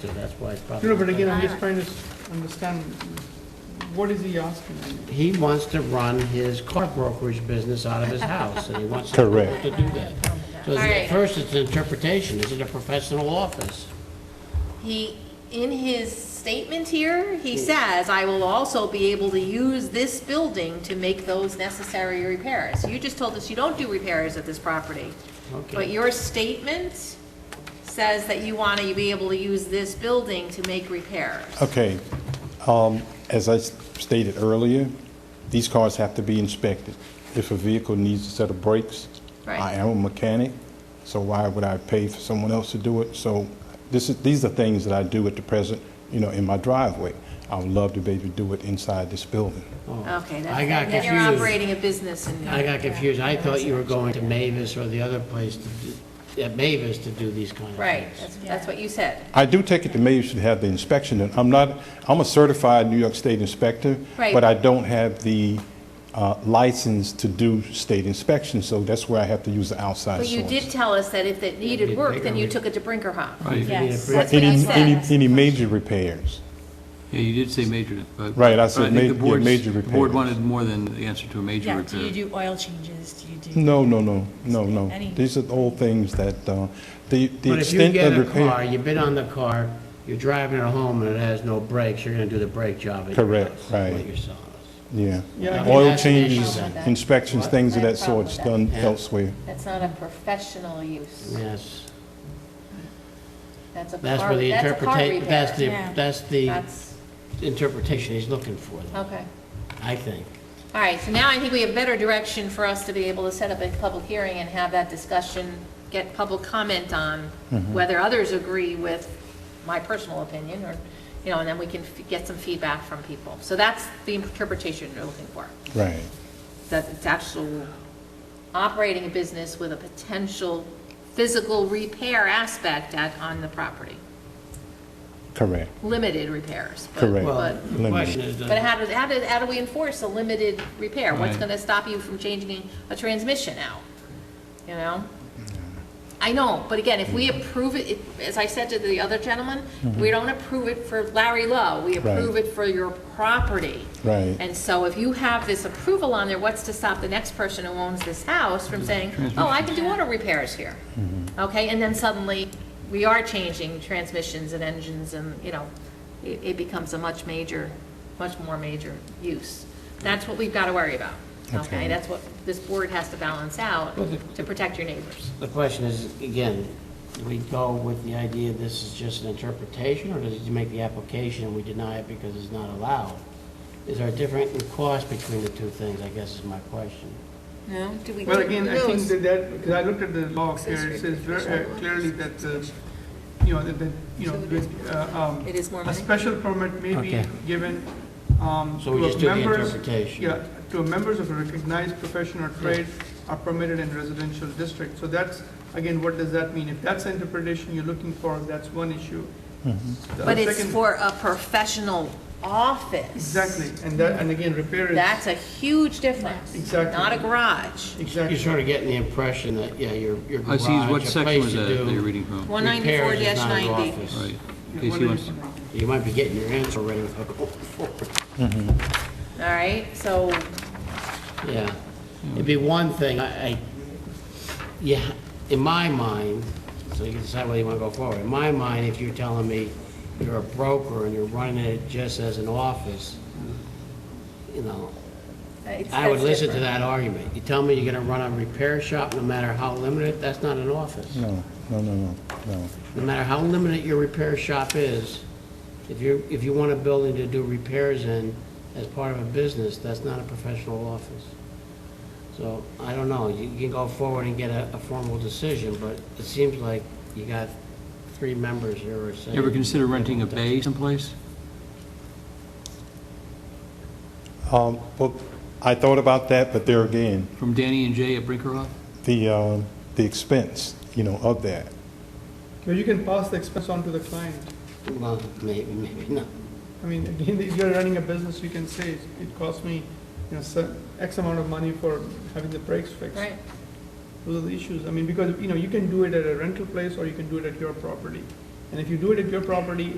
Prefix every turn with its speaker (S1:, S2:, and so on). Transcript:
S1: So that's why it's probably.
S2: No, no, but again, I'm just trying to s- understand, what is he asking?
S1: He wants to run his car brokerage business out of his house, and he wants to be able
S3: Correct.
S1: to do that. So
S4: All right.
S1: at first, it's an interpretation, is it a professional office?
S4: He, in his statement here, he
S1: Hmm.
S4: says, I will also be able to use this building to make those necessary repairs. You just told us you don't do repairs at this property, but
S1: Okay.
S4: your statement says that you want to be able to use this building to make repairs.
S3: Okay, um, as I s- stated earlier, these cars have to be inspected. If a vehicle needs a set of brakes, I
S4: Right.
S3: am a mechanic, so why would I pay for someone else to do it? So this is, these are things that I do at the present, you know, in my driveway. I would love to be able to do it inside this building.
S4: Okay,
S1: Oh, I got
S4: that's, then you're
S1: confused.
S4: operating a business in
S1: I got confused, I thought you were going to Mavis or the other place, to do- at Mavis to do these kind of things.
S4: Right, that's, that's what you said.
S3: I do take it that maybe you should have the inspection. done. I'm not, I'm a certified New York State inspector,
S4: Right.
S3: but I don't have the uh, license to do state inspection, so that's where I have to use the outside
S4: But
S3: source.
S4: you did tell us that if it needed
S1: You'd
S4: work,
S1: make
S4: then
S1: a
S4: you
S1: re-
S4: took it to Brinkerhoff.
S1: You
S5: Right,
S1: need a
S5: Yes.
S1: pre-
S4: That's what I
S3: Any,
S4: said.
S3: any, any major repairs.
S5: yeah, you did say major, but.
S3: Right, I said
S5: but think
S3: ma-
S5: the
S3: yeah,
S5: board's-
S3: major
S5: The board
S3: repairs.
S5: wanted more than the answer to a major
S6: Yeah, do you
S5: repair.
S6: do oil changes, do you do?
S3: No, no, no, no,
S6: Any-
S3: no. These are all things that, uh, the, the
S1: But if you
S3: extent
S1: get
S3: of
S1: a car,
S3: repair.
S1: you've been on the car, you're driving it home and it has no brakes, you're gonna do the brake job at your
S3: Correct,
S1: house, is
S3: right.
S1: What you're selling us.
S3: Yeah.
S2: Yeah, I think
S3: Oil
S1: that's an issue
S3: changes,
S1: with that.
S3: inspections, things of
S4: What?
S3: that sort, it's done
S1: Yeah.
S3: elsewhere.
S4: That's not a professional use.
S1: Yes,
S4: That's a
S1: that's
S4: car,
S1: where the
S4: that's a car
S1: interpretation, that's the,
S4: repair.
S6: Yeah.
S1: that's the
S4: That's,
S1: interpretation he's looking for, though,
S4: okay.
S1: I think.
S4: All right, so now I think we have better direction for us to be able to set up a public hearing and have that discussion, get public comment on whether others agree with my personal opinion, or, you know, and then we can f- get some feedback from people. So that's the interpretation you're looking for,
S3: Right,
S4: that it's actual operating a business with a potential physical repair aspect at, on the property,
S3: correct.
S4: limited repairs. but-
S3: Correct.
S1: Well,
S4: But
S1: the question is,
S4: But
S1: does-
S4: how do, how do, how do we enforce a limited repair? What's
S5: Right.
S4: gonna stop you from changing a transmission out? You know? I know, but again, if
S3: Mm.
S4: we approve it, it- as I said to the other gentleman, we don't approve it for Larry Lowe, we approve
S3: Mm-hmm. Right.
S4: it for your property.
S3: Right.
S4: And so if you have this approval on there, what's to stop the next person who owns this house from saying, oh, I can do auto repairs here? Okay, and then suddenly, we are changing transmissions and engines and, you know, it, it becomes a much major, much more major use. That's what we've got to worry about, okay?
S3: Okay.
S4: That's what this board has to balance out
S1: Well, the-
S4: to protect your neighbors.
S1: the question is, again, do we go with the idea this is just an interpretation, or does he make the application and we deny it because it's not allowed? Is there a difference in cost between the two things, I guess is my question.
S4: No, do we?
S2: Well, again, I think that that, because I looked at the law here, it says ver- uh, clearly that, the, you know, that, that, you know, that, uh, um,
S4: It is more
S2: a
S4: money?
S2: special permit may be
S1: Okay.
S2: given um,
S1: So we
S2: to
S1: just do the
S2: members.
S1: interpretation.
S2: Yeah, to members of a recognized profession or trade are permitted in residential district. So that's, again, what does that mean? If that's the interpretation you're looking for, that's one issue.
S1: Mm-hmm.
S2: The
S4: But it's
S2: second-
S4: for a professional office.
S2: Exactly, and that, and again, repair is.
S4: That's a huge difference.
S2: Exactly.
S4: Not a garage.
S1: You're
S2: Exactly.
S1: sort of getting the impression that, yeah, your your
S5: I
S1: garage,
S5: see,
S1: a
S5: what
S1: place to
S5: section was that that you're
S1: do
S5: reading from?
S4: One ninety-four
S1: repairs is not his
S4: ninety.
S1: office.
S5: Right.
S2: Yeah,
S5: Casey
S2: what
S5: wants
S2: is-
S5: to-
S1: You might be getting your answer ready with
S4: All right, so,
S1: Yeah, it'd be one thing, I, I- yeah, in my mind, so you can decide whether you want to go forward. In my mind, if you're telling me you're a broker and you're running it just as an office, you know,
S4: it's,
S1: I would
S4: that's
S1: listen to
S4: different.
S1: that argument. You tell me you're going to run a repair shop, no matter how limited, that's not an office.
S3: No, no, no, no, no.
S1: No matter how limited your repair shop is, if you, if you want a building to do repairs in as part of a business, that's not a professional office. So, I don't know, you can go forward and get a, a formal decision, but it seems like you got three members here who are saying.
S5: You Ever consider renting a bay someplace?
S3: Um, Well, I thought about that, but there again,
S5: From Danny and Jay at Brinkerhoff?
S3: the, uh, the expense, you know, of that.
S2: Well, you can pass the expense on to the client.
S1: Well, maybe, maybe not.
S2: I mean, again, if you're running a business, you can say, it cost me, you know, cer- X amount of money for having the brakes fixed.
S4: Right,
S2: Those are the issues. I mean, because, you know, you can do it at a rental place or you can do it at your property. And if you do it at your property,